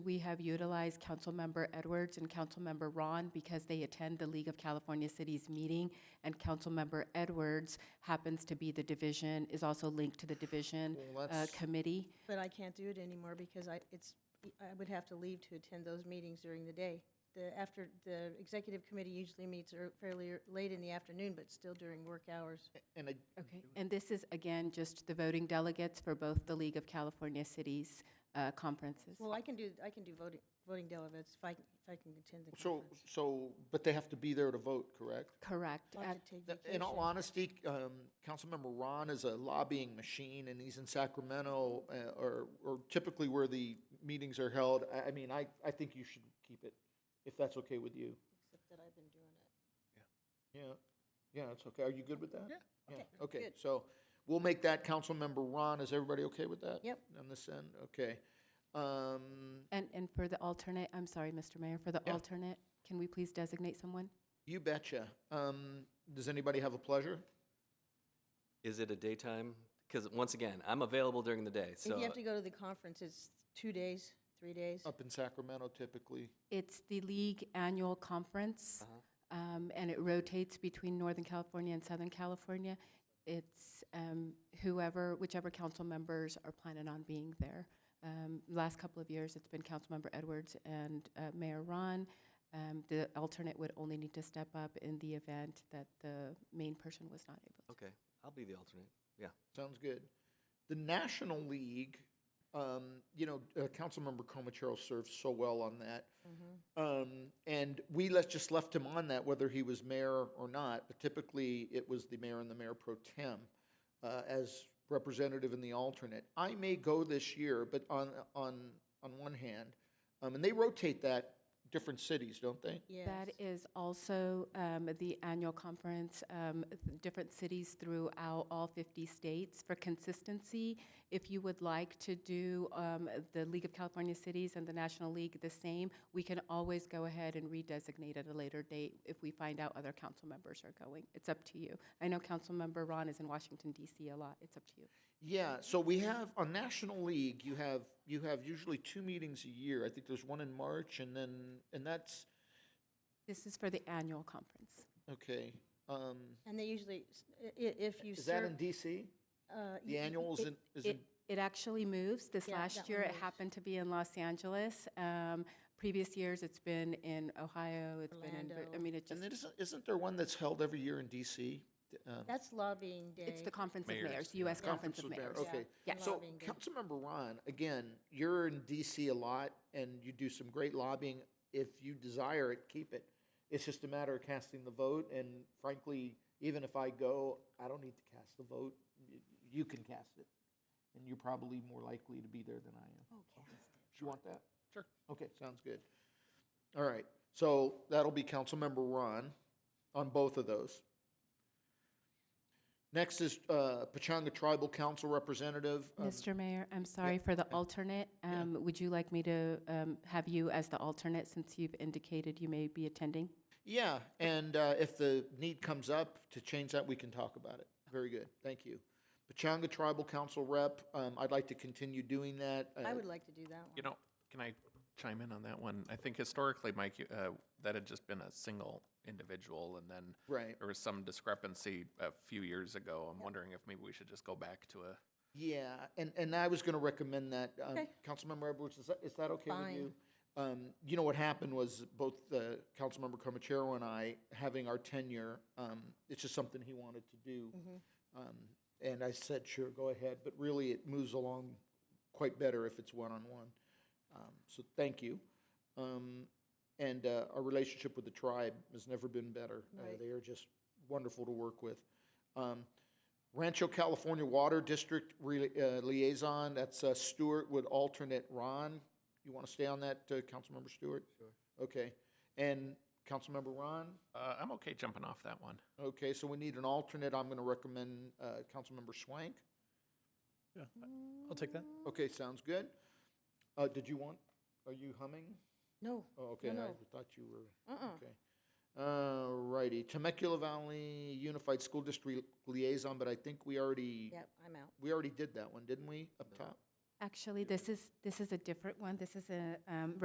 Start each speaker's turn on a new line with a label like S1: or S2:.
S1: We have utilized Councilmember Edwards and Councilmember Ron because they attend the League of California Cities meeting, and Councilmember Edwards happens to be the division, is also linked to the division
S2: Well,
S1: uh,
S2: that's-
S1: committee.
S3: But I can't do it anymore because I, it's, I would have to leave to attend those meetings during the day. The, after, the executive committee usually meets ear- fairly ear- late in the afternoon, but still during work hours.
S2: And I,
S1: Okay, and this is, again, just the voting delegates for both the League of California Cities uh, conferences.
S3: Well, I can do, I can do voting, voting delegates if I, if I can attend the
S2: so,
S3: conference.
S2: so, but they have to be there to vote, correct?
S1: Correct.
S3: I'll
S1: At-
S3: have to take
S2: Th- In all
S3: vacation.
S2: honesty, um, Councilmember Ron is a lobbying machine, and he's in Sacramento, uh, or, or typically where the meetings are held. I, I mean, I, I think you should keep it, if that's okay with you.
S3: Except that I've been doing it.
S2: Yeah, yeah, that's okay. Are you good with that? Yeah. Yeah, okay,
S3: good.
S2: so we'll make that Councilmember Ron. Is everybody okay with that?
S3: Yep.
S2: On this end, okay. Um,
S1: And, and for the alternate, I'm sorry, Mr. Mayor, for the
S2: Yeah.
S1: alternate, can we please designate someone?
S2: you betcha. Um, does anybody have a pleasure?
S4: Is it a daytime? Because once again, I'm available during the day,
S3: If
S4: so
S3: you have to go to the conference, it's two days, three days.
S2: Up in Sacramento typically.
S1: It's the league annual conference, um, and it rotates between Northern California and Southern California. It's um, whoever, whichever council members are planning on being there. Um, Last couple of years, it's been Councilmember Edwards and uh, Mayor Ron. Um, The alternate would only need to step up in the event that the main person was not able to.
S4: okay, I'll be the alternate. Yeah,
S2: Sounds good. The National League, um, you know, uh, Councilmember Comachero served so well on that. Um, and we let, just left him on that, whether he was mayor or not, but typically it was the mayor and the mayor pro tem uh, as representative and the alternate. I may go this year, but on, on, on one hand, um, and they rotate that, different cities, don't they?
S3: Yes.
S1: That is also um, the annual conference, um, th- different cities throughout all 50 states. For consistency, if you would like to do um, the League of California Cities and the National League the same, we can always go ahead and redesignate at a later date if we find out other council members are going. It's up to you. I know Councilmember Ron is in Washington DC a lot. It's up to you.
S2: Yeah, so we have on National League, you have you have usually two meetings a year. I think there's one in March and then and that's
S1: This is for the annual conference.
S2: okay. Um,
S3: And they usually, s- i- i- if you
S2: is that in
S3: serve.
S2: DC?
S3: uh,
S2: The
S3: y-
S2: annual is
S1: it-
S2: in is
S1: It,
S2: in
S1: it actually moves. This
S3: Yeah,
S1: last
S3: that
S1: year,
S3: one
S1: it
S3: moves.
S1: happened to be in Los Angeles. Um, Previous years, it's been in Ohio, it's been in, Vir- I
S3: Orlando.
S1: mean, it just,
S2: and then isn't isn't there one that's held every year in DC? Uh,
S3: That's lobbying day.
S1: it's the Conference of
S5: Mayors,
S1: Mayors,
S5: yeah.
S1: US Conference of Mayors.
S3: Mayors.
S2: Okay.
S1: Yeah.
S3: Yeah.
S2: So
S3: Lobbying group.
S2: Councilmember Ron, again, you're in DC a lot and you do some great lobbying. If you desire it, keep it. It's just a matter of casting the vote and frankly, even if I go, I don't need to cast the vote. Y- You can cast it. And you're probably more likely to be there than I am. Do you want that? Oh, Sure. Okay, sounds good. All right, so that'll be Councilmember Ron on both of those. Next is uh, Pachanga Tribal Council Representative. Um,
S1: Mr. Mayor, I'm sorry for the alternate. Um, Would you like me to um, have you as the alternate since you've indicated you may be attending?
S2: Yeah, and uh, if the need comes up to change that, we can talk about it. Very good, thank you. Pachanga Tribal Council Rep, um, I'd like to continue doing that.
S3: I
S2: Uh,
S3: would like to do that one.
S5: You know, can I chime in on that one? I think historically, Mike, you- uh, that had just been a single individual, and then
S2: Right.
S5: there was some discrepancy a few years ago. I'm wondering if maybe we should just go back to a.
S2: Yeah, and, and I was going to recommend that. um,
S3: Okay.
S2: Councilmember Edwards, is that, is that okay with
S3: Fine.
S2: you? Um, You know, what happened was both the Councilmember Comachero and I, having our tenure, um, it's just something he wanted to do.
S3: Mm-hmm.
S2: Um, And I said, sure, go ahead, but really it moves along quite better if it's one-on-one. Um, So thank you. Um, And uh, our relationship with the tribe has never been better. Uh,
S3: Right.
S2: They are just wonderful to work with. Um, Rancho California Water District re- uh, Liaison, that's uh, Stewart would alternate Ron. You want to stay on that, uh, Councilmember Stewart? Sure. Okay. And Councilmember Ron?
S5: Uh, I'm okay jumping off that one.
S2: Okay, so we need an alternate. I'm going to recommend uh, Councilmember Schwank.
S6: I'll take that.
S2: Okay, sounds good. Uh, Did you want, are you humming?
S3: No,
S2: Oh, okay, I
S3: no.
S2: thought you were.
S3: uh-uh.
S2: Okay. All righty, Temecula Valley Unified School District Liaison, but I think we already,
S3: Yep, I'm out.
S2: we already did that one, didn't we, up top?
S1: Actually, this is, this is a different one. This is a um,